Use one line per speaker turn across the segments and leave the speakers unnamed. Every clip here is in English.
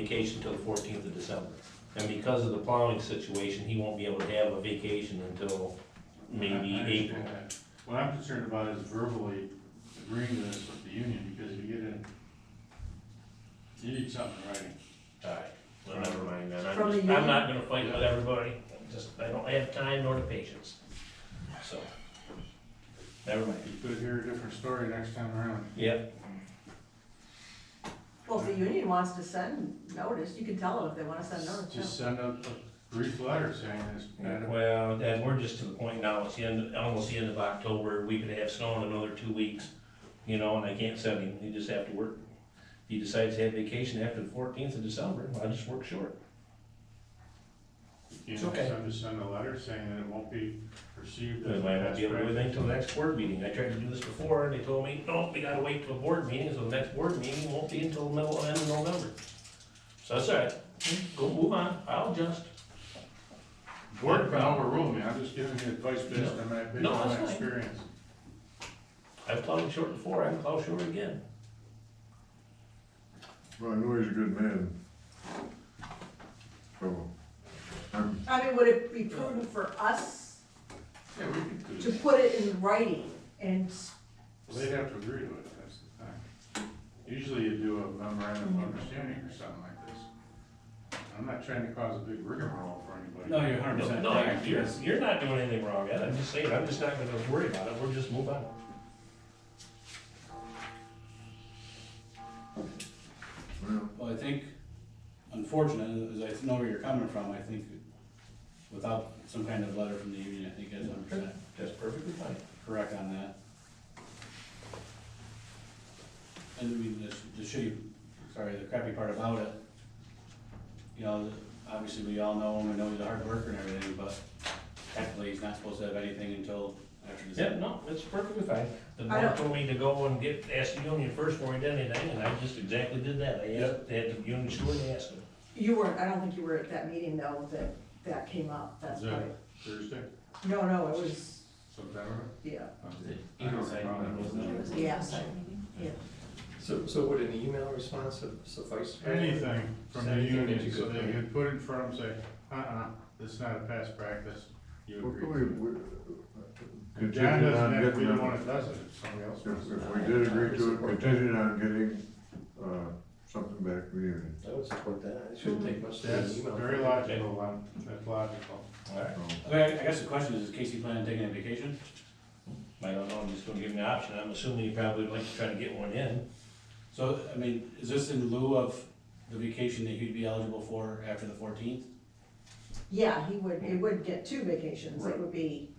vacation till the fourteenth of December. And because of the plowing situation, he won't be able to have a vacation until
I- I
maybe April.
understand that. What I'm concerned about is verbally agreeing to this with the union, because if you get in, you need something in writing.
Alright, well, never mind then,
From
I'm,
the
just- I'm
union?
not gonna fight with everybody, I'm just, I don't have time nor the patience, so. Never mind.
You could hear a different story next time around.
Yep,
Well, if the union wants to send notice, you can tell them if they wanna send notice, yeah.
Just send a a brief letter saying this. and
well, Dad, we're just to the point now, it's the end, almost the end of October, we could have snow in another two weeks, you know, and I can't send him, he just have to work. If he decides to have vacation after the fourteenth of December, I just work short.
You
It's
know,
okay.
send, just send a letter saying that it won't be perceived as.
They might not
past
be able to do
practice.
anything till the next board meeting. I tried to do this before, and they told me, no, we gotta wait till the board meeting, so the next board meeting won't be until the middle, end of November. So that's all right, go move on, I'll adjust.
Board can overrule me, I'm just giving you advice based on my, based
No,
on
that's
my
fine.
experience.
I've plowed short before, I can plow short again.
Well, I know he's a good man. So, I'm,
I mean, would it be prudent for us
Yeah, we could do
to
that.
put it in writing and, s-
Well, They'd have to agree to it, that's the thing. Usually you do a memorandum of understanding or something like this. I'm not trying to cause a big rigmarole for anybody.
No, you're hundred
No,
percent
no,
correct.
you're,
Yes.
you're not doing anything wrong, Ed, I'm just saying, I'm just not gonna worry about it, we'll just move on.
well,
Well, I think, unfortunate, as I know where you're coming from, I think without some kind of letter from the union, I think it's hundred percent
That's perfectly fine.
correct on that. And I mean, the, the shitty, sorry, the crappy part about it, you know, obviously we all know him, we know he's a hard worker and everything, but technically he's not supposed to have anything until after
Yeah,
December.
no, it's perfectly fine. The
I
board
don't-
told me to go and get, ask the union first before I did anything, and I just exactly did that. I asked, they had the union steward, and asked them.
you weren't, I don't think you were at that meeting though, that, that came up, that's
Is that
right.
Thursday,
No, no, it was,
September?
yeah,
I don't know.
yeah, yeah.
So, so would an email response su- suffice?
Anything from the
Anything that you
union, so
could-
they could put it in front of them, and say, uh-uh, this is not a past practice, you
what
agree.
can
to it."
we, we.
If John
uh, Contingent
doesn't
on
have to be the
getting,
one
a-
that does it, it's somebody else.
if, if we did agree to it, contingent on getting, uh, something back from the union.
I would support that, it shouldn't take much to get an
That's
email.
very logical, um, that's logical.
All right,
So,
Okay, I guess the question is, is Casey planning on taking a vacation?
I don't know, I'm just gonna give him the option. I'm assuming he probably would like to try to get one in.
So, I mean, is this in lieu of the vacation that he'd be eligible for after the fourteenth?
Yeah, he would, it would get two vacations, it
Right.
would be,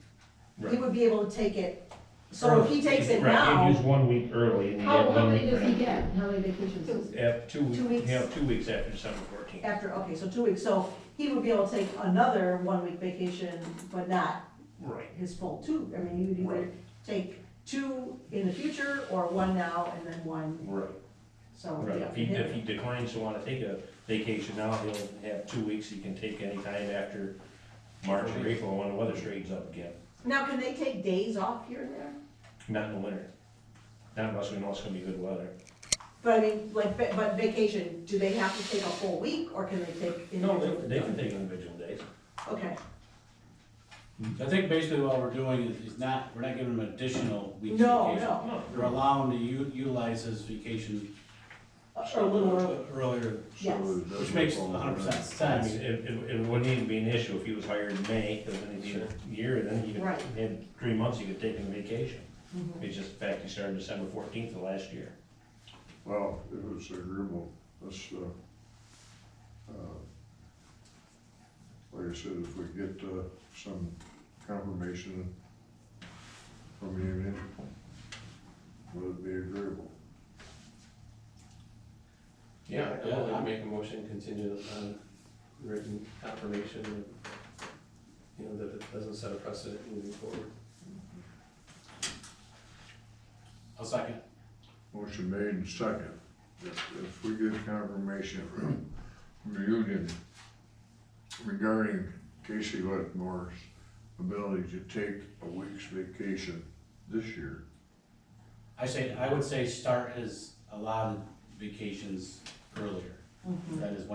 he
Right.
would be able to take it, so if he takes it now,
one week early and
How, how many does he get? How many vacations? does he-
Have two,
Two
weeks.
weeks.
yeah, two weeks after December fourteenth.
after, okay, so two weeks, so he would be able to take another one-week vacation, but not
Right.
his full two, I mean, you would either take two in the future or one now and then one,
Right.
so,
Right,
yeah.
if he, if he declines to wanna take a vacation now, he'll have two weeks he can take any time after March or April when the weather straightens up again.
Now, can they take days off here and there?
Not in the winter. Not unless we know it's gonna be good weather.
But I mean, like, va- but vacation, do they have to take a full week or can they take?
No, they,
individual?
they can take individual days.
Okay,
I think basically what we're doing is, is not, we're not giving him additional weeks
no,
vacation.
no,
We're allowing him to u- utilize his vacation.
or a little early,
Earlier,
yes.
it doesn't
which makes
fall
hundred percent
I
sense.
mean, it, it, it wouldn't even be an issue if he was hired in May, cause then he'd be a year, and then he could,
Right.
he had three months he could take him vacation.
Mhm.
It's just the fact he started December fourteenth of last year.
Well, it was agreeable, let's, uh, uh, like I said, if we get, uh, some confirmation from the union, would it be agreeable?
Yeah, I
Yeah,
would
I'm-
make a motion contingent on written confirmation, of, you know, that it doesn't set a precedent moving forward.
I'll second.
Motion made and second. If, if we get confirmation from the union regarding Casey Whitmore's ability to take a week's vacation this year,
I say, I would say start his allotted vacations earlier.
Mm-hmm.
That is one